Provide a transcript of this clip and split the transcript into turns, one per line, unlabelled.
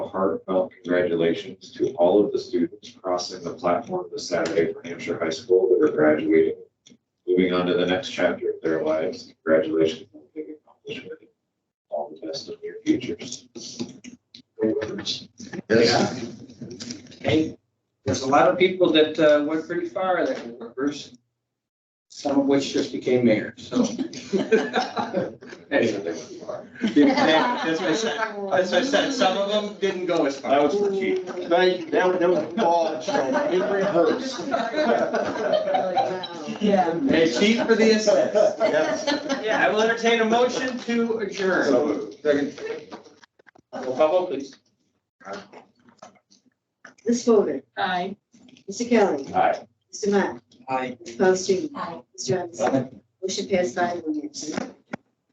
heartfelt congratulations to all of the students crossing the platform this Saturday for Hampshire High School that are graduating. Moving on to the next chapter of their lives. Congratulations. on the big accomplishment. All the best of your futures.
Yeah. Hey, there's a lot of people that uh, went pretty far that were members, some of which just became mayor, so. Anyway, yeah, That's what I said, that's what I said, some of them didn't go as far.
That was the key.
They, that was, that was ball, so in rehearse.
Yeah.
Hey, chief for the assist.
Yes.
Yeah, I will entertain a motion to adjourn.
So moved.
Roll call vote, please.
Ms. Fodor,
Aye.
Mr. Kelly,
Aye.
Mr. Matt,
Aye.
Ms. Paulson,
Aye.
Mr. Robinson. Motion passed by one absent.